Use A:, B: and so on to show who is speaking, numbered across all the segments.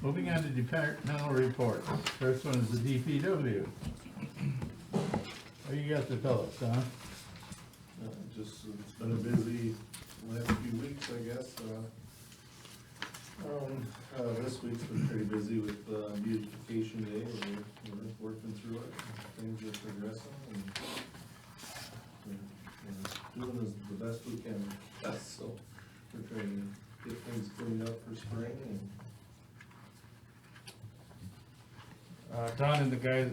A: Moving on to departmental reports. First one is the DPW. What you got to tell us, huh?
B: Uh, Just, it's been a busy last few weeks, I guess. uh, Um, uh, this week's been pretty busy with, uh, beautification day, we're, we're working through it, things are progressing and we're, we're doing as, the best we can, Yes, so we're trying to get things cleaned up for spring and
C: Uh, Don and the guys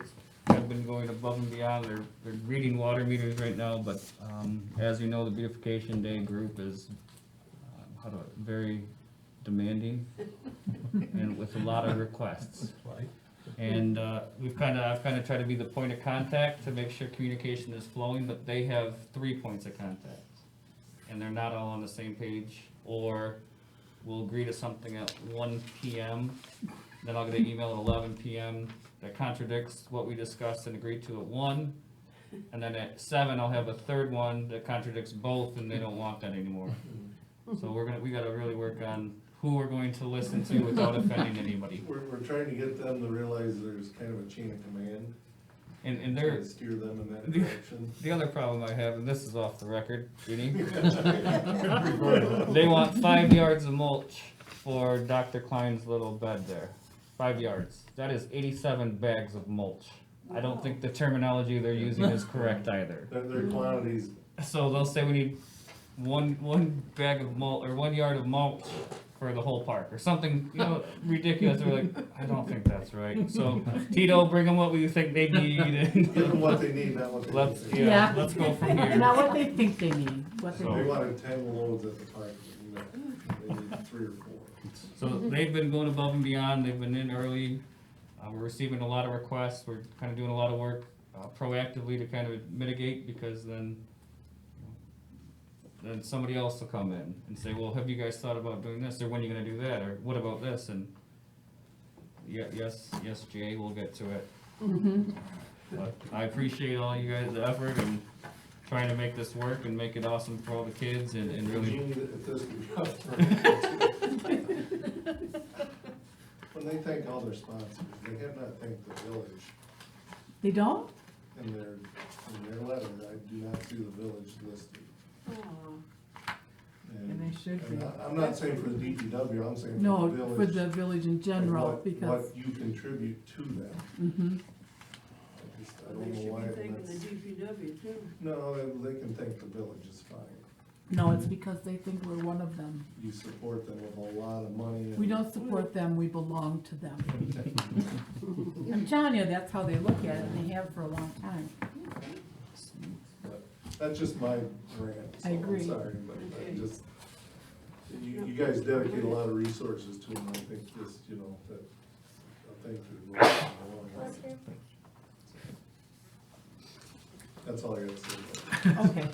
C: have been going above and beyond, they're, they're reading water meters right now, but, um, as you know, the beautification day group is, um, how do I, very demanding and with a lot of requests. And, uh, we've kinda, I've kinda tried to be the point of contact to make sure communication is flowing, but they have three points of contact. And they're not all on the same page, or we'll agree to something at one P M then I'll get an email at eleven PM that contradicts what we discussed and agreed to at one. And then at seven, I'll have a third one that contradicts both and they don't want that anymore. So we're gonna, we gotta really work on who we're going to listen to without offending anybody.
B: we're, we're trying to get them to realize there's kind of a chain of command.
C: And, and
B: trying to
C: there,
B: Steer them in that direction.
C: the other problem I have, and this is off the record, Judy, they want five yards of mulch for Dr. Klein's little bed there. Five yards. That is eighty-seven bags of mulch. I don't think the terminology they're using is correct either.
B: Their, their quantities
C: So they'll say we need one one bag of mulch or one yard of mulch for the whole park or something, you know, ridiculous. We're like, I don't think that's right. So Tito, bring them what we think they need,
B: Give
C: and
B: them what they need, not what they
C: let's
B: think.
C: yeah,
D: Yeah.
C: let's go from here.
D: Not what they think they need, what they
B: They
C: So-
B: wanted ten loads at the park, you know, they need three or four.
C: So they've been going above and beyond. They've been in early. Uh, we're receiving a lot of requests. We're kind of doing a lot of work uh, proactively to kind of mitigate because then. you know, Then somebody else will come in and say, well, have you guys thought about doing this, or when are you gonna do that, or what about this, and yeah, yes, yes, Jay, we'll get to it.
D: Mm-hmm.
C: But I appreciate all you guys' effort and trying to make this work and make it awesome for all the kids and, and really
B: Gene, if this were up for- When they thank all their sponsors, they have not thanked the village
D: They don't?
B: in their, in their letter, I do not see the village listed.
D: And they should
B: I'm
D: be.
B: not- I'm not saying for the DPW, I'm saying for the
D: No,
B: village.
D: for the village in
B: and
D: general,
B: what-
D: because,
B: What you contribute to them.
D: mhm,
B: I just, I
E: They
B: don't know
E: should
B: why
E: be thanking the
B: that's-
E: DPW too.
B: No, they they can thank the village, it's fine.
D: no, it's because they think we're one of them.
B: you support them with a lot of money. and-
D: We don't support them, we belong to them. I'm telling you, that's how they look at it, and they have for a long time.
B: But That's just my rant. so
D: I agree.
B: I'm sorry, but I
E: Okay.
B: just, you, you guys dedicate a lot of resources to them, I think just, you know, that, I thank you. goes a long way. That's all I got to say. about
D: Okay.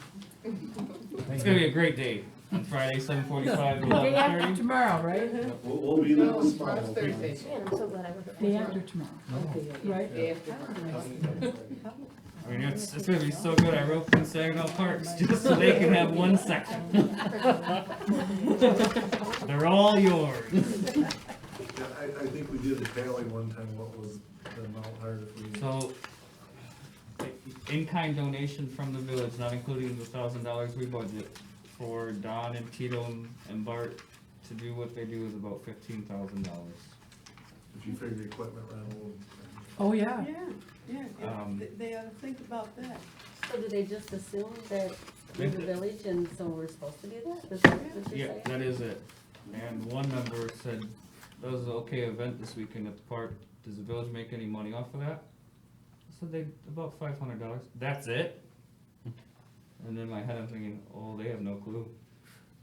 C: It's gonna be a great day on Friday, seven forty-five to
D: Day
C: eleven
D: after
C: thirty.
D: tomorrow, right?
B: it. We'll, we'll be there
F: No,
B: this fall.
F: tomorrow's Thursday.
B: Yeah.
F: Man, I'm so glad I wasn't.
D: Day after tomorrow, right?
F: Day after.
C: I mean, it's, it's gonna be so good, I wrote in Saginaw Parks, just so they can have one section. They're all yours.
B: Yeah, I, I think we did a tally one time, what was the amount hired if we.
C: So, in-kind donation from the village, not including the thousand dollars we budget for Don and Tito and Bart to do what they do is about fifteen thousand dollars.
B: If you figure equipment rental.
D: Oh, yeah.
E: Yeah, yeah, yeah,
C: Um,
E: They- they ought to think about that.
F: So do they just assume that we're the village and so we're supposed to do that? Is that what
C: Yeah,
F: you're saying?
C: that is it. And one member said, that was an okay event this weekend at the park, does the village make any money off of that? I said they, about five hundred dollars, that's it? And in my head, I'm thinking, oh, they have no clue,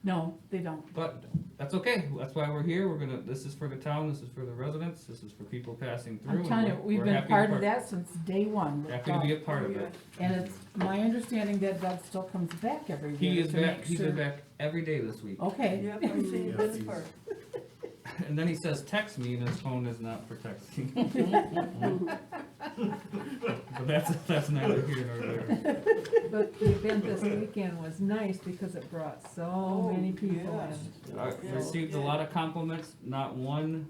D: No, they don't.
C: but that's okay, that's why we're here, we're gonna, this is for the town, this is for the residents, this is for people passing through.
D: I'm
C: and
D: telling you,
C: we're-
D: we've
C: we're
D: been
C: happy to
D: part of
C: part-
D: that Oh, since day one.
C: Happy to be a part of it.
D: And it's my understanding that Doug still comes back every
C: He
D: year
C: is
D: to
C: back,
D: make
C: he's been
D: sure.
C: back every day this week,
D: Okay.
E: Yeah, I'm saying
B: Yeah,
E: this
B: he's-
E: part.
C: and then he says, text me, and his phone is not for texting. But that's, that's neither here nor there.
D: But the event this weekend was nice because it brought so
E: Oh,
D: many people
E: yes.
D: in.
C: I received a lot of compliments, not one